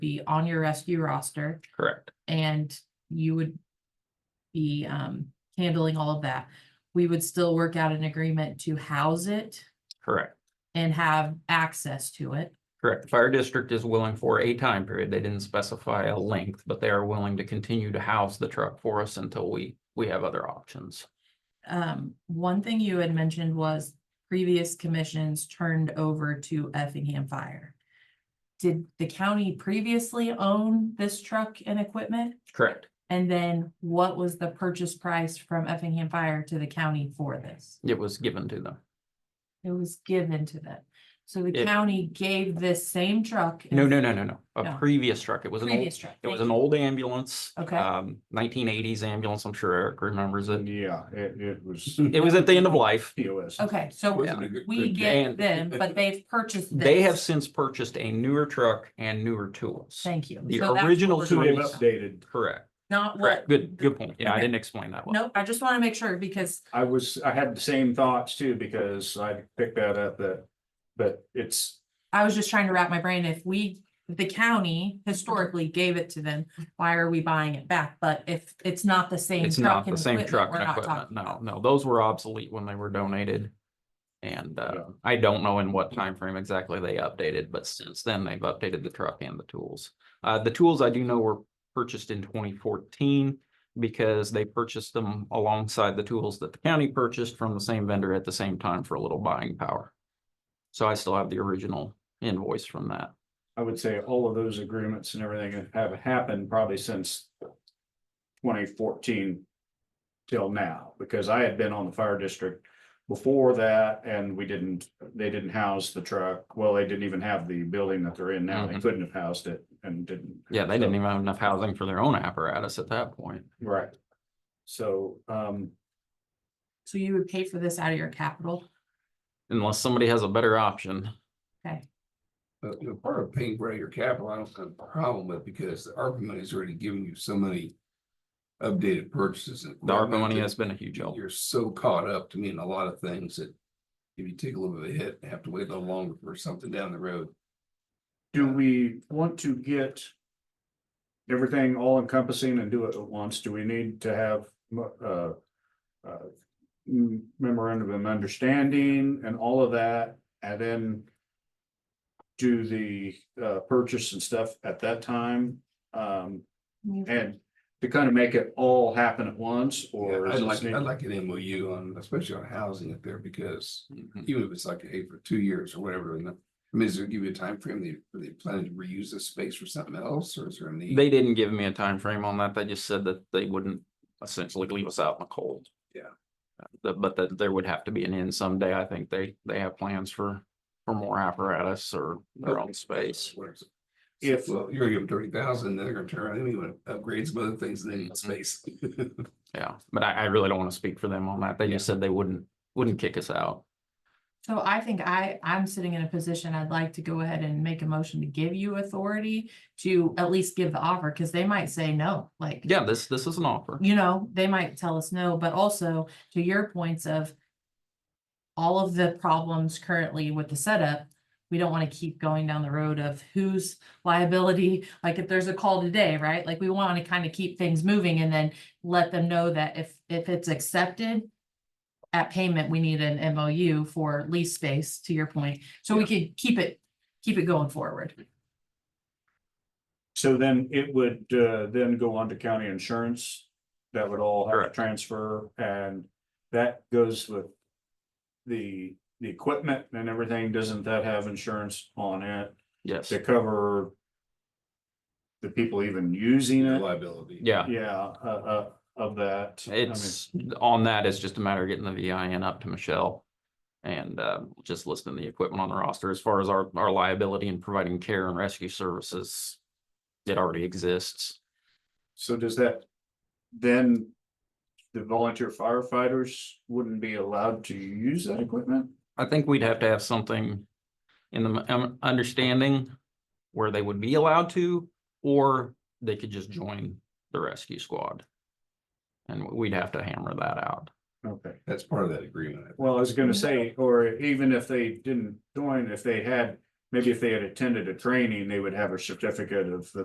be on your rescue roster Correct. and you would be um handling all of that. We would still work out an agreement to house it Correct. and have access to it. Correct. The fire district is willing for a time period. They didn't specify a length, but they are willing to continue to house the truck for us until we, we have other options. Um, one thing you had mentioned was previous commissions turned over to Effingham Fire. Did the county previously own this truck and equipment? Correct. And then what was the purchase price from Effingham Fire to the county for this? It was given to them. It was given to them. So the It- county gave this same truck. No, no, no, no, no. A No. previous truck. It was an old, Previous truck. it was an old ambulance. Okay. Um, nineteen eighties ambulance. I'm sure Eric remembers it. Yeah, it, it was. It was at the end of life. POS. Okay, so Yeah. we get And- them, but they've purchased this. They have since purchased a newer truck and newer tools. Thank you. So the that's what original we're So talking they've tools. about. updated. Correct. Not what. Correct. Good, good point. Yeah, I Okay. didn't explain that well. Nope, I just want to make sure because I was, I had the same thoughts too, because I picked that up that, but it's, I was just trying to wrap my brain, if we, if the county historically gave it to them, why are we buying it back? But if it's not the same. It's truck not the and same equipment, truck we're and not equipment, talking no, about it. no, those were obsolete when they were donated. And Yeah. uh, I don't know in what time frame exactly they updated, but since then they've updated the truck and the tools. Uh, the tools I do know were purchased in twenty fourteen because they purchased them alongside the tools that the county purchased from the same vendor at the same time for a little buying power. So I still have the original invoice from that. I would say all of those agreements and everything have happened probably since twenty fourteen till now, because I had been on the fire district before that and we didn't, they didn't house the truck. Well, they didn't even have the building that they're in now. They Mhm. couldn't have housed it and didn't. Yeah, they didn't So- even have enough housing for their own apparatus at that point. Right. So, um, So you would pay for this out of your capital? Unless somebody has a better option. Okay, Uh, you know, part of paying for your capital, I don't have a problem with because the ARPA money is already giving you so many. Updated purchases. and The ARPA equipment money that has been a huge help. You're so caught up to me in a lot of things that. If you take a little bit of a hit, and have to wait a little longer for something down the road. do we want to get everything all encompassing and do it at once? Do we need to have, mo- uh, uh, m- memorandum of understanding and all of that, and then do the, uh, purchase and stuff at that time? Um, You- and to kind of make it all happen at once, or? I'd is like, this need- I'd like an MOU on, especially on housing up there because Mhm. even if it's like, hey, for two years or whatever, and. I mean, is there give you a timeframe, they, they plan to reuse this space for something else or is there a need? They didn't give me a time frame on that. They just said that they wouldn't essentially leave us out in the cold. Yeah. Uh, But, but that there would have to be an end someday. I think they, they have plans for, for more apparatus or their own space. Whatever. If- Well, you're gonna give them thirty thousand, then they're gonna turn around, and even upgrade some other things, and they Mhm. need space. Yeah, but I, I really don't want to speak for them on that. They just said they wouldn't, wouldn't kick us out. So I think I, I'm sitting in a position, I'd like to go ahead and make a motion to give you authority to at least give the offer, because they might say no, like. Yeah, this, this is an offer. you know, they might tell us no, but also to your points of all of the problems currently with the setup, we don't want to keep going down the road of whose liability, like if there's a call today, right? Like we want to kind of keep things moving and then let them know that if, if it's accepted at payment, we need an MOU for lease space, to your point. So we could keep it, keep it going forward. So then it would uh then go on to county insurance. That would all have to Correct. transfer and that goes with. The the equipment and everything, doesn't that have insurance on it Yes. to cover? The people even using it, Liability. Yeah. yeah, uh uh of that. I mean, It's, on that, it's just a matter of getting the VIN up to Michelle. And uh, just listing the equipment on the roster as far as our, our liability and providing care and rescue services. It already exists. So does that? Then. The volunteer firefighters wouldn't be allowed to use that equipment? I think we'd have to have something in the um, understanding where they would be allowed to, or they could just join the rescue squad. And we'd have to hammer that out. Okay. That's part of that agreement. Well, I was gonna say, or even if they didn't join, if they had maybe if they had attended a training, they would have a certificate of the